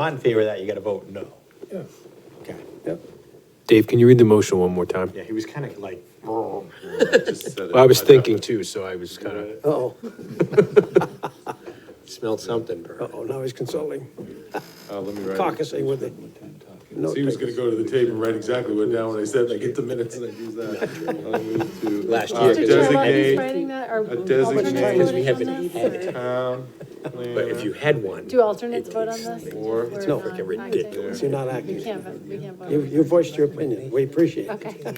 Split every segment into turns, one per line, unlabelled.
Not in favor of that, you gotta vote no. Okay,
Yep.
Dave, can you read the motion one more time?
yeah, he was kind of like,
Just said it.
I was thinking too, so I was kind of,
Uh-oh,
smelled something burning.
uh-oh, now he's consulting,
Uh, let me write it.
caucusing with the.
So he was gonna go to the tape and write exactly what down when I said, like, get the minutes and I use that. I move to,
Last
uh,
year.
Mr. Chair, while he's
Designate
writing that, are
designated-
alternates
We E
voting on
haven't
this? or-
But
uh,
if you had one.
Do alternates vote on this?
Or-
We're
No.
not
Freaking
acting.
ridiculous.
You're not
We
acting.
can't, vote- we can't
You,
vote.
you voiced your opinion, we appreciate it.
Okay.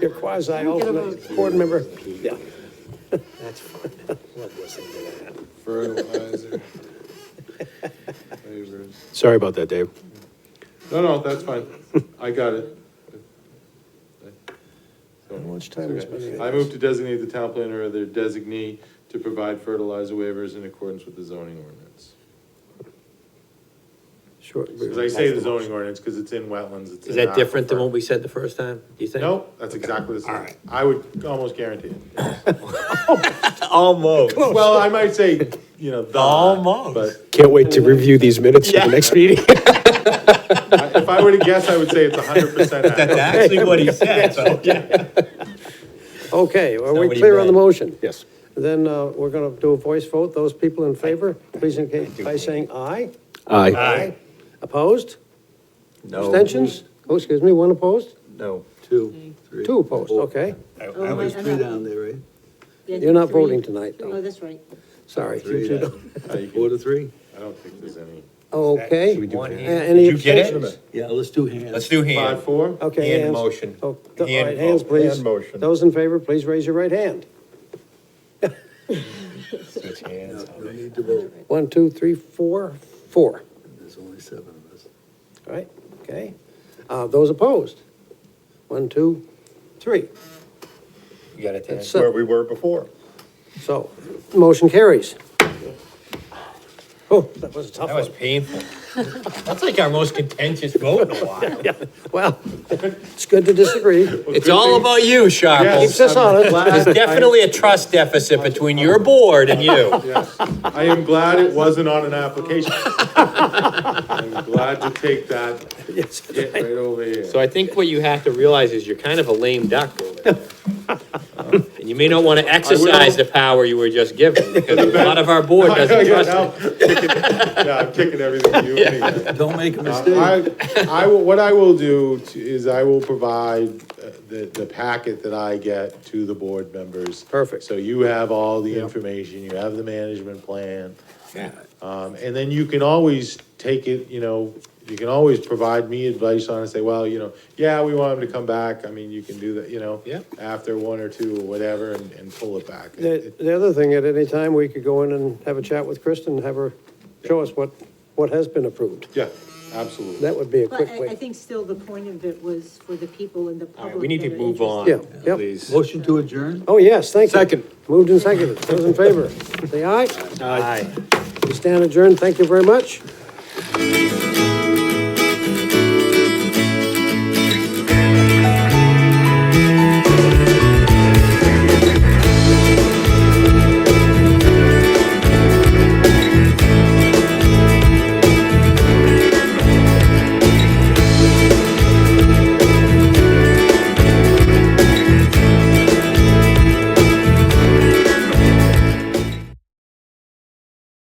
You're quasi-alternate board member, yeah.
That's fine. Love listening to that.
fertilizer. Flavors.
sorry about that, Dave.
No, no, that's fine. I got it.
How much time is
Okay.
spent?
I move to designate the town planner or their designee to provide fertilizer waivers in accordance with the zoning ordinance.
Sure.
Because I say the zoning ordinance, because it's in wetlands, it's in.
Is that different than
aquifer.
what we said the first time, you think?
Nope, that's exactly the same. I would almost guarantee it.
Almost.
Well, I might say, you know, the.
Oh, Almost.
But
Can't wait to review these minutes for the next meeting.
I- if I were to guess, I would say it's hundred percent accurate.
Actually, what he said, so.
Okay, are we
Somebody
clear on the
read.
motion?
Yes.
Then, uh, we're gonna do a voice vote, those people in favor, please indicate by saying aye.
Aye.
Opposed?
No.
Abstentions? Oh, excuse me, one opposed?
No.
Two.
Two opposed, okay.
Oh, there's three down there, right?
You're not voting tonight,
Oh,
though,
that's right.
sorry.
Three down.
Uh, you can-
Four to three?
I don't think there's any.
Okay.
Should we do
One
it?
A-
hand.
Any
Did you get it?
abstentions?
Yeah, let's do hands.
Let's do hand.
Five, four?
Okay.
Hand
hands.
motion.
Oh, th- All
Hand
right, hands,
vote.
please.
Hand motion.
Those in favor, please raise your right hand.
Switch hands.
No need to vote.
One, two, three, four, four.
There's only seven of us.
All right, okay. Uh, Those opposed? One, two, three.
You got it, Dan?
That's it.
we were before.
So, motion carries. Oh, that was a tough
That was
one.
painful. That's like our most contentious vote in a while.
Well, it's good to disagree.
It's all about you, Sharples.
Keeps us honest.
There's definitely a trust deficit between your board and you.
Yes. I am glad it wasn't on an application. I'm glad to take that,
Yes.
get right over here.
So I think what you have to realize is you're kind of a lame duck over there. And you may not want to exercise the power you were just given, because a lot of our board doesn't trust it.
I'm kicking- Yeah, I'm kicking everything you anyway.
Don't make a mistake.
I, I will, what I will do to- is I will provide uh, the, the packet that I get to the board members.
Perfect.
So you have all the information, you have the management plan. Um, and then you can always take it, you know, you can always provide me advice on it, say, well, you know, yeah, we want him to come back, I mean, you can do that, you know.
Yeah.
After one or two or whatever and, and pull it back. It-
The,
it-
the other thing, at any time, we could go in and have a chat with Kristen, have her show us what, what has been approved.
Yeah, absolutely.
That would be a
But
quick
I, I
way.
think still the point of it was for the people in the
All
public.
right, we need
that
to
are
move
interested.
on,
Yeah, yep.
please.
Motion to adjourn?
Oh, yes, thank you.
Second.
Moved and seconded. Those in favor, say aye. We stand adjourned. Thank you very much.